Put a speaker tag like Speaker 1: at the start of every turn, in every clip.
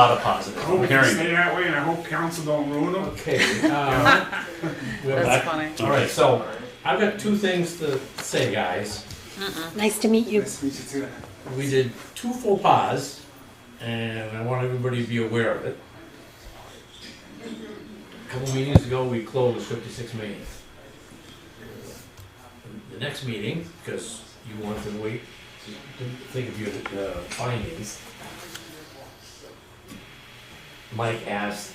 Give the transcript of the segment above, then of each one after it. Speaker 1: lot of
Speaker 2: I
Speaker 1: positives,
Speaker 2: hope
Speaker 1: I'm
Speaker 2: it can
Speaker 1: hearing.
Speaker 2: stay that way, and I hope council don't ruin them.
Speaker 3: Oh, Okay, um, we have
Speaker 4: That's
Speaker 3: back-
Speaker 4: funny.
Speaker 3: all right, so I've got two things to say, guys.
Speaker 5: Nice to meet you.
Speaker 2: Nice to meet you too.
Speaker 3: We did two faux pas, and I want everybody to be aware of it. A couple meetings ago, we closed fifty-six meetings. The next meeting, because you wanted to wait, to think of your uh, findings. Mike asked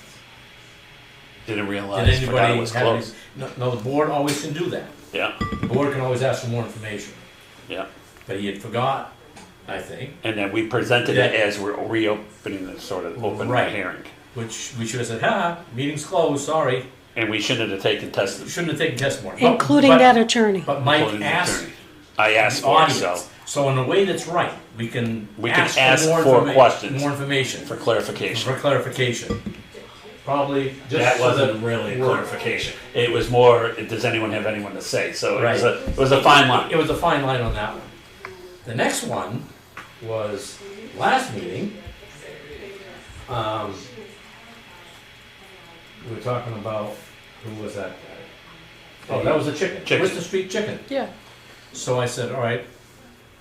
Speaker 1: Didn't
Speaker 3: Did
Speaker 1: realize, forgot it
Speaker 3: anybody
Speaker 1: was
Speaker 3: have any,
Speaker 1: closed.
Speaker 3: no, no, the board always can do that.
Speaker 1: Yeah,
Speaker 3: The board can always ask for more information,
Speaker 1: yeah.
Speaker 3: but he had forgot, I think,
Speaker 1: And then we presented it
Speaker 3: Yeah.
Speaker 1: as we're reopening the sort of open
Speaker 3: Right.
Speaker 1: hearing.
Speaker 3: which we should have said, ha, meeting's closed, sorry.
Speaker 1: And we shouldn't have taken testimony.
Speaker 3: Shouldn't have taken testimony. But-
Speaker 5: Including
Speaker 3: but-
Speaker 5: that attorney.
Speaker 3: But Mike
Speaker 1: Including the
Speaker 3: asked
Speaker 1: attorney. I asked
Speaker 3: the
Speaker 1: for it, so,
Speaker 3: audience, so in a way that's right, we can
Speaker 1: We can
Speaker 3: ask
Speaker 1: ask
Speaker 3: for
Speaker 1: for
Speaker 3: more information,
Speaker 1: questions.
Speaker 3: more information,
Speaker 1: for clarification.
Speaker 3: for clarification. Probably just.
Speaker 1: That
Speaker 3: so that
Speaker 1: wasn't really a
Speaker 3: we're-
Speaker 1: clarification. It was more, does anyone have anyone to say? So it was
Speaker 3: Right.
Speaker 1: a, it was a fine line.
Speaker 3: It was a fine line on that one. The next one was last meeting. Um, we were talking about who was that guy? Oh, that was a chicken.
Speaker 1: Chicken.
Speaker 3: Where's the street chicken?
Speaker 4: Yeah.
Speaker 3: So I said, all right,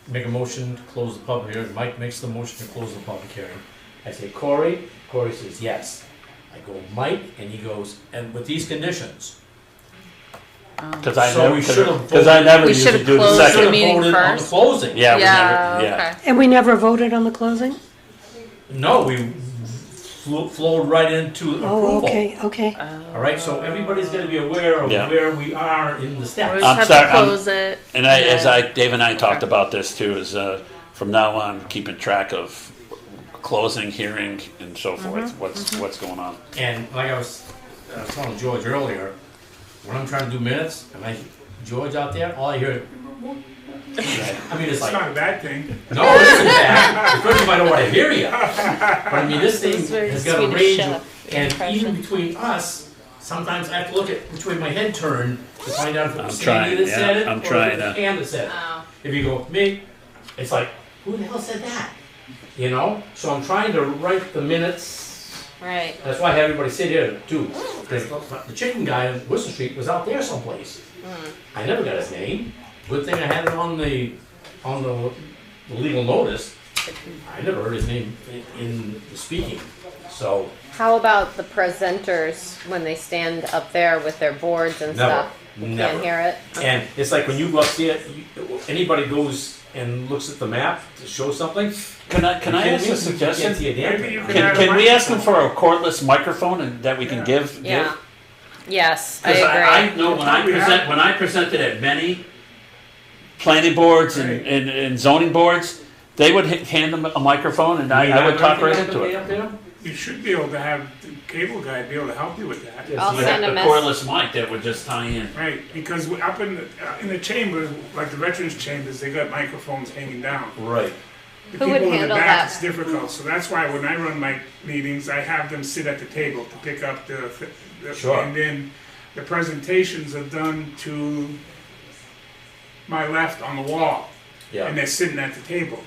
Speaker 3: make a motion to close the public hearing. Mike makes the motion to close the public hearing. I say, Corey. Corey says, yes. I go, Mike, and he goes, and with these conditions.
Speaker 1: Because I
Speaker 3: So
Speaker 1: never,
Speaker 3: we should've
Speaker 1: because I
Speaker 3: voted.
Speaker 1: never
Speaker 4: We
Speaker 1: used to
Speaker 4: should've
Speaker 1: do the
Speaker 4: closed
Speaker 3: Should
Speaker 1: second.
Speaker 3: have
Speaker 4: meeting
Speaker 3: voted on the
Speaker 4: first.
Speaker 3: closing.
Speaker 1: Yeah, we
Speaker 4: Yeah,
Speaker 1: never, yeah.
Speaker 4: okay.
Speaker 5: And we never voted on the closing?
Speaker 3: No, we flew, flowed right into
Speaker 5: Oh,
Speaker 3: approval.
Speaker 5: okay, okay.
Speaker 3: All right, so everybody's got to be aware of
Speaker 1: Yeah.
Speaker 3: where we are in the
Speaker 4: We
Speaker 3: steps.
Speaker 4: just
Speaker 1: I'm
Speaker 4: have
Speaker 1: sorry,
Speaker 4: to
Speaker 1: I'm-
Speaker 4: close it.
Speaker 1: And I, as
Speaker 4: Yeah.
Speaker 1: I, Dave and I talked
Speaker 4: Okay.
Speaker 1: about this too, is uh, from now on, keeping track of closing, hearing, and so
Speaker 4: Mm-hmm.
Speaker 1: forth, what's, what's going on.
Speaker 3: And like I was, I was telling George earlier, when I'm trying to do minutes, and I, George out there, all I hear, I mean, it's
Speaker 2: It's
Speaker 3: like,
Speaker 2: not a bad thing.
Speaker 3: no, this is bad. First of all, I don't want to hear you. But I mean, this
Speaker 4: It
Speaker 3: thing
Speaker 4: was very
Speaker 3: has got a
Speaker 4: Swedish
Speaker 3: range, of-
Speaker 4: chef
Speaker 3: and
Speaker 4: impression.
Speaker 3: even between us, sometimes I have to look at which way my head turned to find out if it
Speaker 1: I'm
Speaker 3: was
Speaker 1: trying,
Speaker 3: Sandy that
Speaker 1: yeah,
Speaker 3: said it
Speaker 1: I'm
Speaker 3: or if
Speaker 1: trying
Speaker 3: it was
Speaker 1: to-
Speaker 3: Pam that said it. If you go me, it's like, who the hell said that? You know? So I'm trying to write the minutes.
Speaker 4: Right.
Speaker 3: That's why I had everybody sit here too. Because the chicken guy on Worcester Street was out there someplace.
Speaker 6: Hmm.
Speaker 3: I never got his name. Good thing I had it on the on the legal notice. I never heard his name in, in the speaking. So
Speaker 6: How about the presenters when they stand up there with their boards and
Speaker 3: Never.
Speaker 6: stuff? You
Speaker 3: Never.
Speaker 6: Can't hear it.
Speaker 3: And it's like when you go up there, you, anybody goes and looks at the map to show something.
Speaker 1: Can I, can I
Speaker 3: you
Speaker 1: ask a
Speaker 3: can't see- you can't
Speaker 1: suggestion?
Speaker 3: see a damn
Speaker 2: Maybe you
Speaker 3: thing.
Speaker 2: could-
Speaker 1: Can, can we ask them for a cordless microphone and that we can give?
Speaker 6: Yeah.
Speaker 1: give?
Speaker 6: Yes, I
Speaker 1: 'Cause I, I
Speaker 6: agree.
Speaker 1: know when I
Speaker 2: We have-
Speaker 1: present, when I presented at many planning boards and,
Speaker 2: Right.
Speaker 1: and, and zoning boards, they would h- hand them a microphone and I, I would talk right into it.
Speaker 2: You should be able to have the cable guy be able to help you with that.
Speaker 3: Yes.
Speaker 6: I'll
Speaker 3: Yeah,
Speaker 6: send a
Speaker 1: The
Speaker 6: message.
Speaker 1: cordless mic that would just tie in.
Speaker 2: Right, because we- up in, the- uh, in the chambers, like the veterans chambers, they got microphones hanging down.
Speaker 3: Right.
Speaker 2: The
Speaker 6: Who would
Speaker 2: people in the
Speaker 6: handle
Speaker 2: back,
Speaker 6: that?
Speaker 2: it's difficult, so that's why when I run my meetings, I have them sit at the table to pick up the, the-
Speaker 3: Sure.
Speaker 2: and then the presentations are done to my left on the wall, and
Speaker 3: Yeah.
Speaker 2: they're sitting at the table.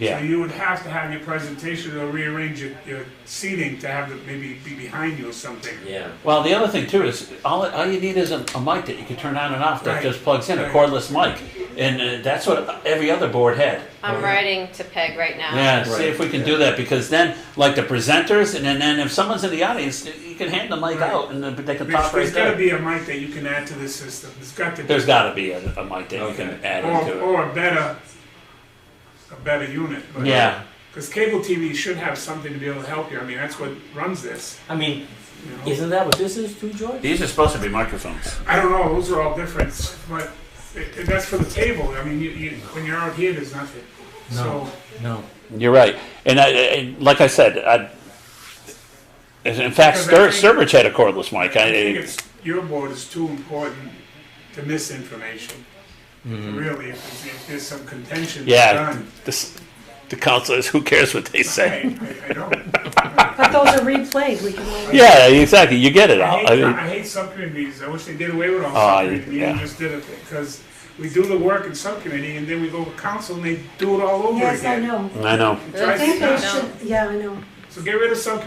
Speaker 2: So
Speaker 1: Yeah.
Speaker 2: you would have to have your presentation or rearrange your, your seating to have it maybe be behind you or something.
Speaker 3: Yeah.
Speaker 1: Well, the other thing too is all, all you need is a, a mic that you can turn on and off that
Speaker 2: Right.
Speaker 1: just plugs in, a
Speaker 2: Right.
Speaker 1: cordless mic. And uh, that's what every other board had.
Speaker 6: I'm writing to Peg right now.
Speaker 1: Yeah,
Speaker 3: Right.
Speaker 1: see if we can do that because then, like the presenters, and then, then if someone's in the audience, you can hand the mic
Speaker 2: Right.
Speaker 1: out and then they can
Speaker 2: There's,
Speaker 1: talk right
Speaker 2: there's gotta
Speaker 1: there.
Speaker 2: be a mic that you can add to the system, there's got to be.
Speaker 1: There's got to be a, a mic that you can
Speaker 3: Okay.
Speaker 1: add
Speaker 2: Or,
Speaker 1: into it.
Speaker 2: or a better, a better unit. but-
Speaker 1: Yeah,
Speaker 2: Because cable TV should have something to be able to help you. I mean, that's what runs this.
Speaker 3: I mean,
Speaker 2: You know?
Speaker 3: isn't that what this is too, George?
Speaker 1: these are supposed to be microphones.
Speaker 2: I don't know; those are all different, but it, it- that's for the table. I mean, you, you, when you're out here, there's nothing.
Speaker 3: No.
Speaker 2: So
Speaker 3: No.
Speaker 1: You're right, and I, and like I said, I. In fact, Stur-
Speaker 2: Because I
Speaker 1: Sturbridge had a cordless
Speaker 2: I
Speaker 1: mic.
Speaker 2: think
Speaker 1: I,
Speaker 2: it's your board is too important to misinformation. Really, if, there's- if there's some contention,
Speaker 1: Mm-hmm. yeah,
Speaker 2: done.
Speaker 1: this, the council is who cares what they say.
Speaker 2: I, I, I don't.
Speaker 5: But those are replayed, we can always.
Speaker 1: Yeah, exactly. You get it
Speaker 2: I
Speaker 1: out.
Speaker 2: hate,
Speaker 1: I
Speaker 2: I
Speaker 1: mean,
Speaker 2: hate subcommittees. I wish they did away with all
Speaker 1: Ah,
Speaker 2: subcommittees
Speaker 1: yeah.
Speaker 2: and just did it because we do the work in subcommittee and then we go to council and they do it all over
Speaker 5: Yes, I
Speaker 2: again.
Speaker 5: know.
Speaker 1: I know.
Speaker 2: It
Speaker 5: I
Speaker 2: drives me
Speaker 5: think they
Speaker 2: nuts.
Speaker 5: should, yeah, I know.
Speaker 2: So get rid of subcommittee